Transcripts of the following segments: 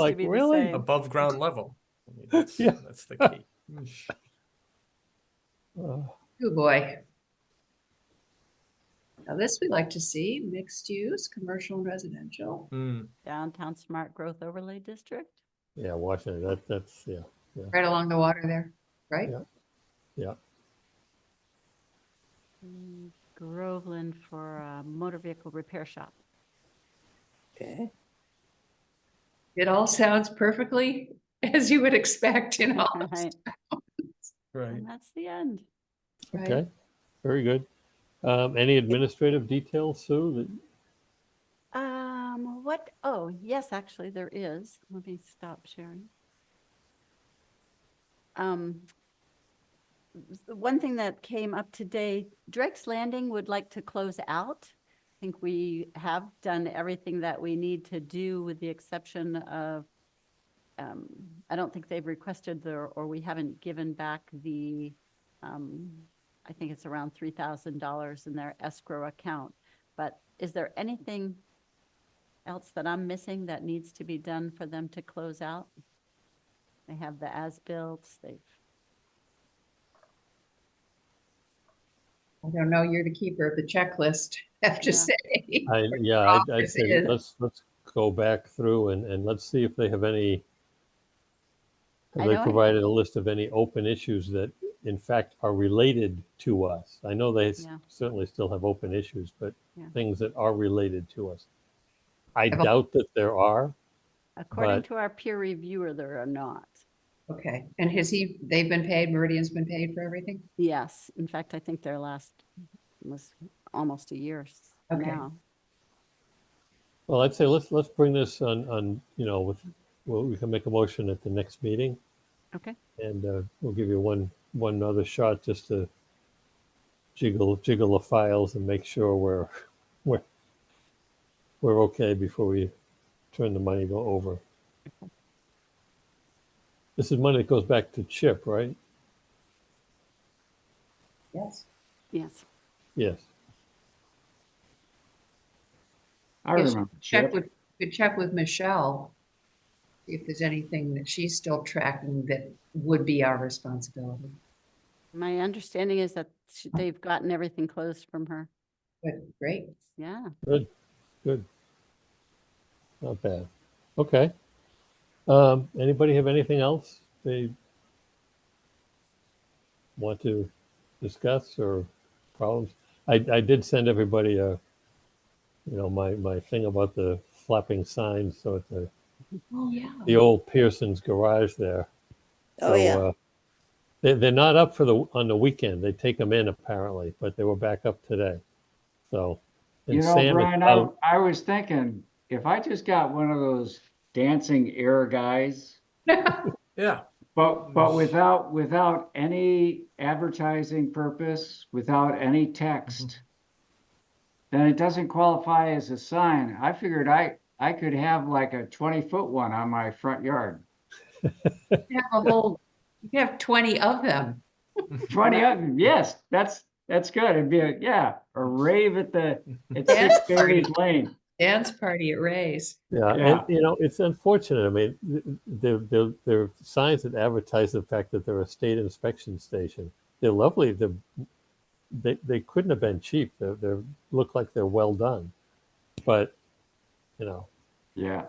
like, be the really? same. above ground level. I mean, that's, Yeah. that's the key. Uh, Oh boy. Now this we like to see, mixed use, commercial and residential. Hmm. Downtown Smart Growth Overlay District? Yeah, Washington, that, that's, yeah. Right along the water there, right? Yeah. Mm, Groveland for a motor vehicle repair shop. Okay. It all sounds perfectly as you would expect in all of Right, Right. And that's the end. right? Okay, very good. Um, any administrative details, Sue? That, Um, what, oh, yes, actually, there is. Let me stop sharing. Um, the one thing that came up today, Drake's Landing would like to close out. I think we have done everything that we need to do with the exception of, um, I don't think they've requested the, or we haven't given back the, um, I think it's around three thousand dollars in their escrow account. But is there anything else that I'm missing that needs to be done for them to close out? They have the as-built, they've, I don't know, you're the keeper of the checklist, I have to Yeah. say. I, yeah, I'd, I'd Office say is- let's, let's go back through and, and let's see if they have any. I Have they know I- provided a list of any open issues that in fact are related to us? I know they s- Yeah. certainly still have open issues, but Yeah. things that are related to us. I I've al- doubt that there are. according But- to our peer reviewer, there are not. Okay, and has he, they've been paid, Meridian's been paid for everything? Yes, in fact, I think their last was almost a year s- Okay. now. Well, I'd say let's, let's bring this on, on, you know, with, well, we can make a motion at the next meeting. Okay. And uh, we'll give you one, one other shot just to jiggle, jiggle the files and make sure we're, we're, we're okay before we turn the money go over. This is money that goes back to Chip, right? Yes. Yes, Yes. I Yes, remember. Check Chip. with, could check with Michelle if there's anything that she's still tracking that would be our responsibility. my understanding is that sh- they've gotten everything closed from her. But great, Yeah, Good. Not bad. Okay. Um, anybody have anything else they want to discuss or problems? I, I did send everybody a, you know, my, my thing about the flapping signs. So at the, oh, yeah. the old Pearson's garage there. Oh, So, yeah. uh, They, they're not up for the, on the weekend. They take them in apparently, but they were back up today. So. and You know, Sam is Brian, I, out. I was thinking, if I just got one of those dancing air guys, Yeah. but, but without, without any advertising purpose, without any text, then it doesn't qualify as a sign. I figured I, I could have like a twenty-foot one on my front yard. You have a whole, you could have twenty of them. Twenty of them, yes, that's, that's good. It'd be, a yeah, a rave at the, at Six Berries Lane. Dance party at Ray's. Yeah, and Yeah. you know, it's unfortunate. I mean, th- th- there, there, there are signs that advertise the fact that they're a state inspection station. They're lovely. They're, they, they couldn't have been cheap. They're, they're, look like they're well done. But, you know, Yeah.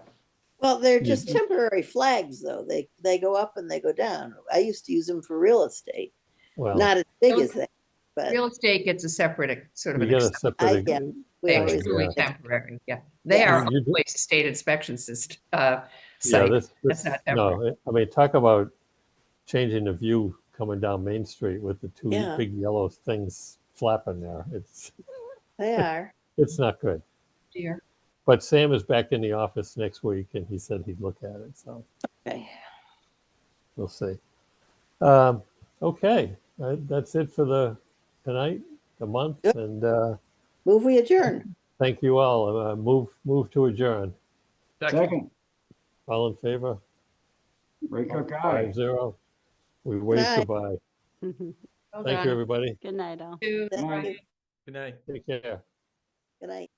Well, they're Yeah. just temporary flags though. They, they go up and they go down. I used to use them for real estate, well, not as big Don't- as that, but Real estate gets a separate, ac- sort of we an got a exception. separate. yeah. we Yeah, always, Truly yeah. temporary, yeah. They are You do- always a state inspection system, uh, Yeah, site. this, That's this, not no, I mean, talk about changing the view coming down Main Street with the two Yeah. big yellow things flapping there. It's, they are. it's not good. Dear. But Sam is back in the office next week and he said he'd look at it, so Okay. we'll see. Um, okay, uh, that's it for the tonight, the month, Yep. and uh, Move we adjourn. thank you all. Uh, move, move to adjourn. Second. Second, All in favor? Ray Cook, aye. Five zero. We wave Aye. goodbye. good Hold Thank on. you, everybody. night all. Two, Thank Brian. you. Good night. Take care. Good night.